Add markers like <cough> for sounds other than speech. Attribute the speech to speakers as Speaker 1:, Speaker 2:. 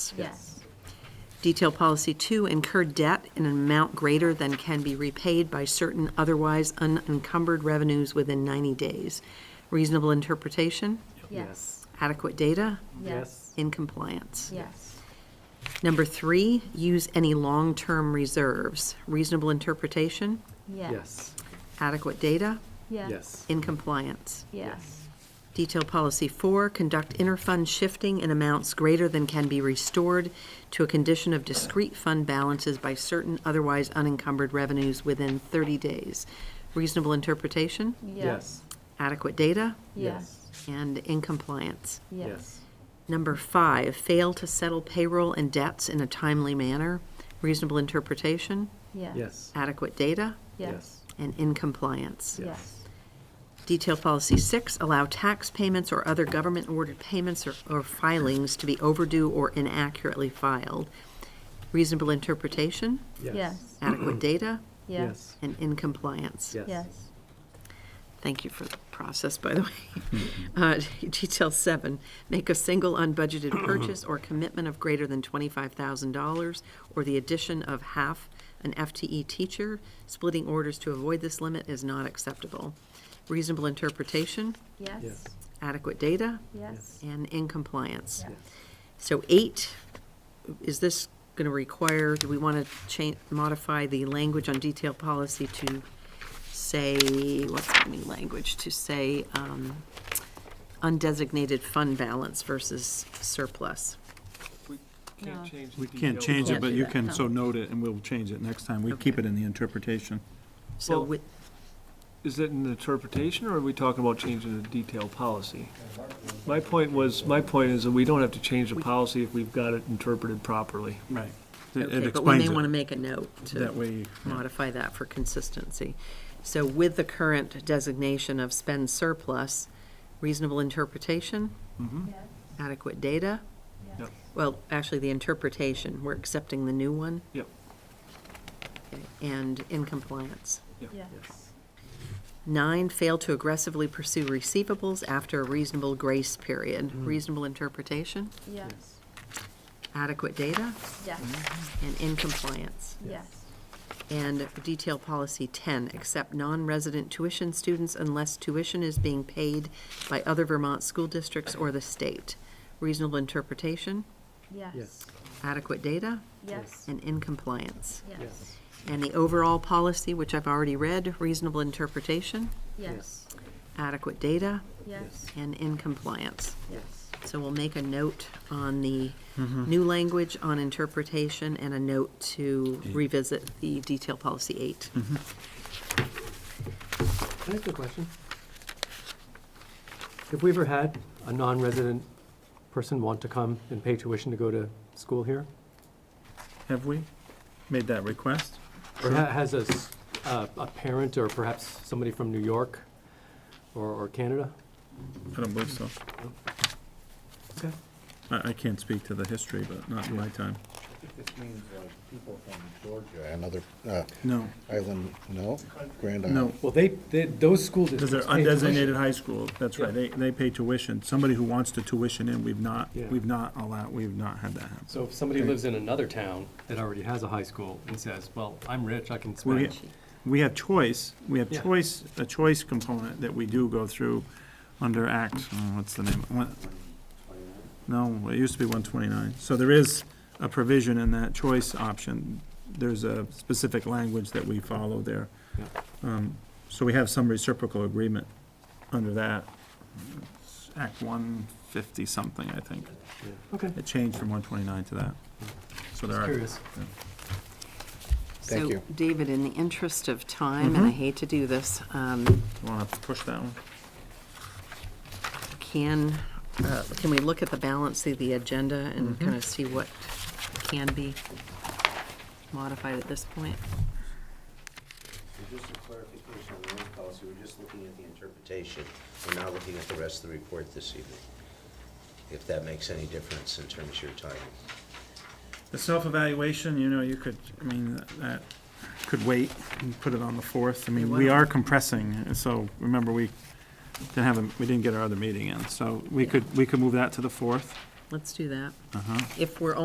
Speaker 1: Yes.
Speaker 2: Yes.
Speaker 1: Detail policy two, incur debt in an amount greater than can be repaid by certain otherwise unencumbered revenues within 90 days. Reasonable interpretation,
Speaker 2: Yes.
Speaker 1: adequate data,
Speaker 2: Yes.
Speaker 1: in compliance.
Speaker 2: Yes.
Speaker 1: Number three, use any long-term reserves. Reasonable interpretation,
Speaker 2: Yes.
Speaker 1: adequate data,
Speaker 2: Yes.
Speaker 1: in compliance.
Speaker 2: Yes.
Speaker 1: Detail policy four, conduct inter-fund shifting in amounts greater than can be restored to a condition of discrete fund balances by certain otherwise unencumbered revenues within 30 days. Reasonable interpretation,
Speaker 2: Yes.
Speaker 1: adequate data,
Speaker 2: Yes.
Speaker 1: and in compliance.
Speaker 2: Yes.
Speaker 1: Number five, fail to settle payroll and debts in a timely manner. Reasonable interpretation,
Speaker 2: Yes.
Speaker 1: adequate data,
Speaker 2: Yes.
Speaker 1: and in compliance.
Speaker 2: Yes.
Speaker 1: Detail policy six, allow tax payments or other government-ordered payments or- or filings to be overdue or inaccurately filed. Reasonable interpretation,
Speaker 2: Yes.
Speaker 1: adequate data,
Speaker 2: Yes.
Speaker 1: and in compliance.
Speaker 2: Yes.
Speaker 1: Thank you for the process, by the <laughs> way. Uh, <laughs> Detail seven, make a single unbudgeted purchase or commitment of greater than $25,000 or the addition of half an FTE teacher. Splitting orders to avoid this limit is not acceptable. Reasonable interpretation,
Speaker 2: Yes.
Speaker 1: adequate data,
Speaker 2: Yes.
Speaker 1: and in compliance.
Speaker 2: Yes.
Speaker 1: So eight, is this going to require, do we want to change, modify the language on detail policy to say, what's the new language, to say um, undesignated fund balance versus surplus?
Speaker 3: We
Speaker 2: No.
Speaker 3: can't change.
Speaker 4: We can't change it,
Speaker 1: Can't
Speaker 4: but
Speaker 1: do
Speaker 4: you
Speaker 1: that,
Speaker 4: can
Speaker 1: no.
Speaker 4: so note it, and we'll change it next time. We keep it in the interpretation.
Speaker 1: So
Speaker 3: Well-
Speaker 1: with,
Speaker 3: Is it an interpretation, or are we talking about changing the detailed policy? My point was, my point is that we don't have to change the policy if we've got it interpreted properly.
Speaker 4: Right. It
Speaker 1: okay, but we
Speaker 4: explains
Speaker 1: may want to
Speaker 4: it.
Speaker 1: make a note
Speaker 4: That
Speaker 1: to
Speaker 4: way,
Speaker 1: modify that for consistency. So with the current designation of spend surplus, reasonable interpretation, adequate data,
Speaker 3: Yep.
Speaker 1: Well, actually, the interpretation, we're accepting the new one
Speaker 3: Yep.
Speaker 1: okay, and in compliance.
Speaker 2: Yes.
Speaker 1: Nine, fail to aggressively pursue receivables after a reasonable grace period. Reasonable interpretation,
Speaker 2: Yes.
Speaker 1: adequate data,
Speaker 2: Yes.
Speaker 1: and in compliance.
Speaker 2: Yes.
Speaker 1: And detail policy 10, accept non-resident tuition students unless tuition is being paid by other Vermont school districts or the state. Reasonable interpretation,
Speaker 2: Yes.
Speaker 1: adequate data,
Speaker 2: Yes.
Speaker 1: and in compliance.
Speaker 2: Yes.
Speaker 1: And the overall policy, which I've already read, reasonable interpretation,
Speaker 2: Yes.
Speaker 1: adequate data,
Speaker 2: Yes.
Speaker 1: and in compliance.
Speaker 2: Yes.
Speaker 1: So we'll make a note on the new language on interpretation and a note to
Speaker 5: Mm-hmm.
Speaker 1: revisit the detail policy eight.
Speaker 4: Mm-hmm.
Speaker 6: Can I ask a question? Have we ever had a non-resident person want to come and pay tuition to go to school here?
Speaker 4: have we made that request?
Speaker 6: Or ha- has a, s- a- a parent or perhaps somebody from New York or, or Canada?
Speaker 4: I don't believe so.
Speaker 6: Okay.
Speaker 4: I, I can't speak to the history, but not in my time.
Speaker 5: This means like people from Georgia and other uh,
Speaker 4: No,
Speaker 5: island, no? Grand Island?
Speaker 4: no.
Speaker 6: Well, they, they, those school
Speaker 4: Because they're
Speaker 6: districts. pay tuition.
Speaker 4: undesignated high school, that's right. They, they pay tuition. Somebody who wants to tuition in, we've not,
Speaker 6: Yeah.
Speaker 4: we've not allowed, we've not had that happen.
Speaker 6: So if somebody lives in another town that already has a high school and says, well, I'm rich, I can
Speaker 4: We,
Speaker 6: spend.
Speaker 4: we have choice, we have
Speaker 6: Yeah.
Speaker 4: choice, a choice component that we do go through under Act, oh, what's the name? One- No, it used to be one twenty-nine. So there is a provision in that choice option. There's a specific language that we follow there.
Speaker 6: Yeah.
Speaker 4: Um, So we have some reciprocal agreement under that. It's Act one fifty something, I think.
Speaker 6: Yeah. Okay,
Speaker 4: It changed from one twenty-nine to that. So there
Speaker 6: just
Speaker 4: are.
Speaker 6: curious.
Speaker 5: Thank you.
Speaker 1: So, David, in the interest of time, and I hate to do this, um,
Speaker 4: Want to push that one?
Speaker 1: can, uh, can we look at the balance of the agenda and
Speaker 5: Mm-hmm.
Speaker 1: kind of see what can be modified at this point?
Speaker 7: So Just a clarification on the loan policy, we're just looking at the interpretation. We're not looking at the rest of the report this evening, if that makes any difference in terms of your timing.
Speaker 4: The self-evaluation, you know, you could, I mean, that could wait and put it on the fourth. I mean, we are compressing, and so remember, we didn't have, a we didn't get our other meeting in, so we could, we could move that to the fourth.
Speaker 1: Let's do that.
Speaker 4: Uh-huh.
Speaker 1: If we're